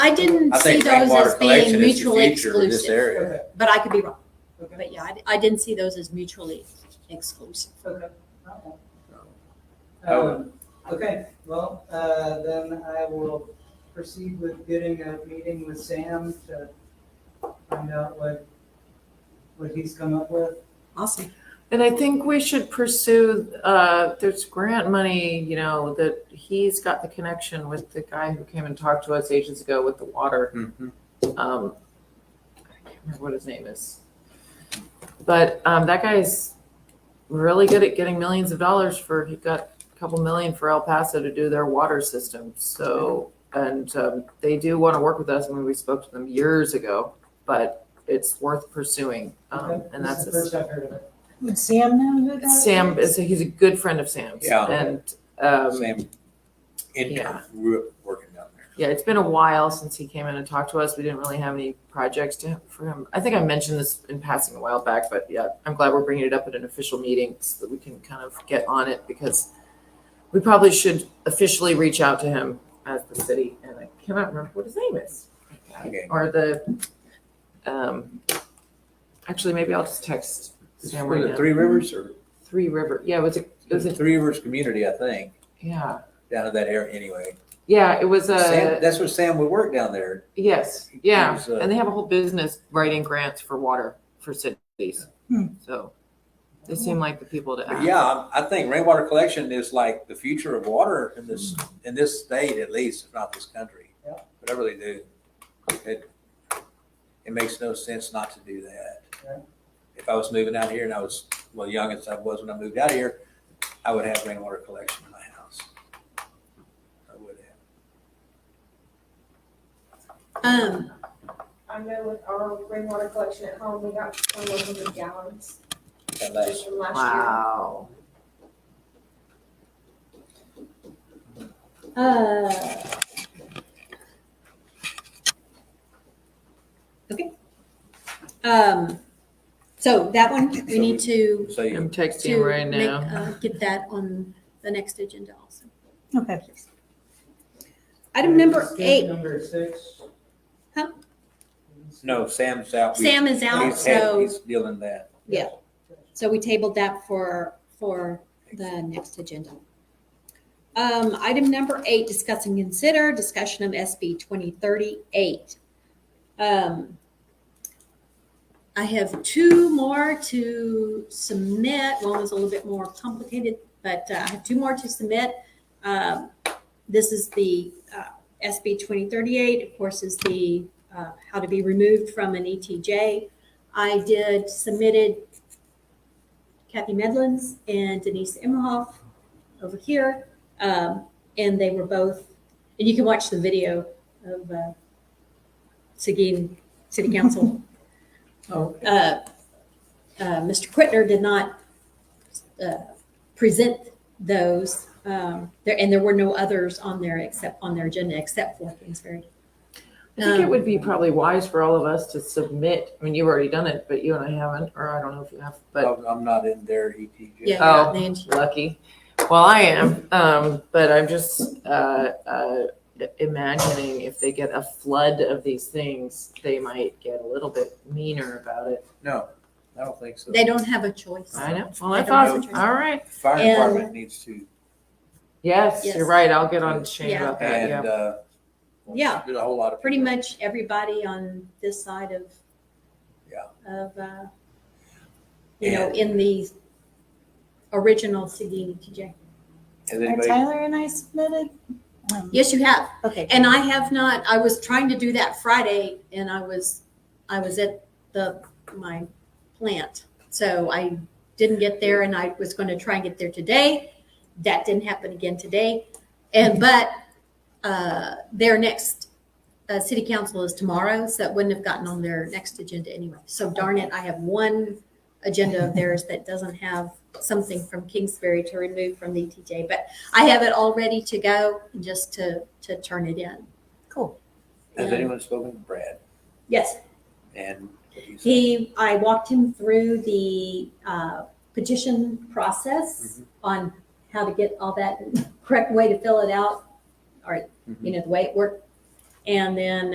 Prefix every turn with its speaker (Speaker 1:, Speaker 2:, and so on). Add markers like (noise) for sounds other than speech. Speaker 1: I didn't
Speaker 2: I
Speaker 1: see
Speaker 2: think
Speaker 1: those
Speaker 2: groundwater
Speaker 1: as being
Speaker 2: collection is the
Speaker 1: mutually
Speaker 2: future of this
Speaker 1: exclusive,
Speaker 2: area.
Speaker 3: Okay,
Speaker 1: but I could be wrong.
Speaker 3: okay,
Speaker 1: But yeah, I, I didn't see those as mutually exclusive.
Speaker 3: okay. all right. Um, Okay, well, uh, then I will proceed with getting a meeting with Sam to find out what, what he's come up with.
Speaker 1: Awesome.
Speaker 4: And I think we should pursue, uh, there's grant money, you know, that he's got the connection with the guy who came and talked to us ages ago with the water.
Speaker 2: Mhm.
Speaker 4: Um, I can't remember what his name is. But, um, that guy's really good at getting millions of dollars for, he got a couple million for El Paso to do their water system. So, and, um, they do want to work with us. I mean, we spoke to them years ago, but it's worth pursuing. Um,
Speaker 3: Okay,
Speaker 4: and
Speaker 3: this is
Speaker 4: that's.
Speaker 3: the
Speaker 4: his-
Speaker 3: First I've heard of it.
Speaker 5: Would Sam know who that is?
Speaker 4: Sam is he's a good friend of Sam's.
Speaker 2: Yeah.
Speaker 4: And um,
Speaker 2: Same income,
Speaker 4: yeah.
Speaker 2: grew up working down there.
Speaker 4: yeah, it's been a while since he came in and talked to us. We didn't really have any projects to, for him. I think I mentioned this in passing a while back, but yeah, I'm glad we're bringing it up at an official meeting so that we can kind of get on it because we probably should officially reach out to him as the city. And I cannot remember what his name is
Speaker 2: Okay.
Speaker 4: or the. Um, actually, maybe I'll just text
Speaker 2: Is
Speaker 4: Sam
Speaker 2: it for
Speaker 4: right
Speaker 2: the
Speaker 4: now.
Speaker 2: Three Rivers or
Speaker 4: Three River. Yeah, it was a, it was
Speaker 2: the
Speaker 4: a,
Speaker 2: Three Rivers community, I think,
Speaker 4: yeah.
Speaker 2: down in that area anyway.
Speaker 4: Yeah, it was a,
Speaker 2: Sam, that's where Sam would work down there.
Speaker 4: yes,
Speaker 2: It
Speaker 4: yeah,
Speaker 2: was, uh,
Speaker 4: and they have a whole business writing grants for water for cities.
Speaker 5: Hmm.
Speaker 4: So they seem like the people to
Speaker 2: But
Speaker 4: ask.
Speaker 2: yeah, I I think rainwater collection is like the future of water in this, in this state at least, if not this country.
Speaker 3: Yeah.
Speaker 2: But I really do. It, it makes no sense not to do that.
Speaker 3: Yeah.
Speaker 2: If I was moving out here and I was, well, young as I was when I moved out here, I would have rainwater collection in my house. I would have.
Speaker 1: Um,
Speaker 6: I know with our rainwater collection at home, we got twenty-one hundred gallons
Speaker 2: That
Speaker 6: just
Speaker 2: last,
Speaker 6: from last year.
Speaker 4: Wow.
Speaker 1: uh, okay. Um, so that one, we need to,
Speaker 2: so you
Speaker 4: I'm texting
Speaker 1: to
Speaker 4: him right
Speaker 1: make,
Speaker 4: now.
Speaker 1: uh, get that on the next agenda also.
Speaker 5: Okay.
Speaker 1: Item number
Speaker 3: Skip
Speaker 1: eight,
Speaker 3: Number six.
Speaker 1: Huh?
Speaker 2: No, Sam's out. We-
Speaker 1: Sam is out,
Speaker 2: he's had-
Speaker 1: so,
Speaker 2: He's dealing that.
Speaker 1: yeah. So we tabled that for, for the next agenda. Um, item number eight, discuss and consider discussion of SB twenty thirty-eight. Um, I have two more to submit. One was a little bit more complicated, but uh, I have two more to submit. Um, this is the, uh, SB twenty thirty-eight, of course, is the, uh, how to be removed from an ETJ. I did submitted Kathy Medlins and Denise Imhoff over here. Um, and they were both, and you can watch the video of uh, Seguin City Council.
Speaker 4: (laughs) Oh.
Speaker 1: Uh, uh, Mr. Quittner did not uh, present those. Um, there, and there were no others on there except on their agenda except for Kingsbury.
Speaker 4: I think
Speaker 1: Um,
Speaker 4: it would be probably wise for all of us to submit, I mean, you've already done it, but you and I haven't, or I don't know if you have, but
Speaker 2: I'm I'm not in there, E ETJ.
Speaker 1: Oh. Yeah,
Speaker 4: Oh.
Speaker 1: and
Speaker 4: lucky. Well, I am, um, but I'm just, uh, uh, imagining if they get a flood of these things, they might get a little bit meaner about it.
Speaker 2: No, I don't think so.
Speaker 1: they don't have a choice.
Speaker 4: I know. Well, I
Speaker 1: I don't
Speaker 4: thought,
Speaker 1: know.
Speaker 4: all right.
Speaker 2: Fire
Speaker 1: And-
Speaker 2: department needs to,
Speaker 4: Yes,
Speaker 1: Yes.
Speaker 4: you're right. I'll get on Shane
Speaker 1: Yeah.
Speaker 4: about that.
Speaker 2: and,
Speaker 4: Yeah.
Speaker 2: uh.
Speaker 1: Yeah.
Speaker 2: There's a whole lot of.
Speaker 1: pretty much everybody on this side of
Speaker 2: Yeah.
Speaker 1: of uh, you know in the original CD TJ.
Speaker 2: Has
Speaker 5: Are
Speaker 2: anybody,
Speaker 5: Tyler and I submitted? Um,
Speaker 1: Yes, you have.
Speaker 5: Okay.
Speaker 1: And I have not. I was trying to do that Friday, and I was I was at the my plant, so I didn't get there, and I was going to try and get there today. That didn't happen again today, and but uh, their next uh, city council is tomorrow, so that wouldn't have gotten on their next agenda anyway. So darn it, I have one agenda of theirs that doesn't have something from Kingsbury to remove from the ETJ, but I have it all ready to go and just to, to turn it in.
Speaker 5: Cool.
Speaker 2: has anyone spoken to Brad
Speaker 1: Yes,
Speaker 2: and? what he said?
Speaker 1: he, I walked him through the uh, petition process on how to get all (laughs) that, correct way to fill it out, or, you know, the way it worked. And then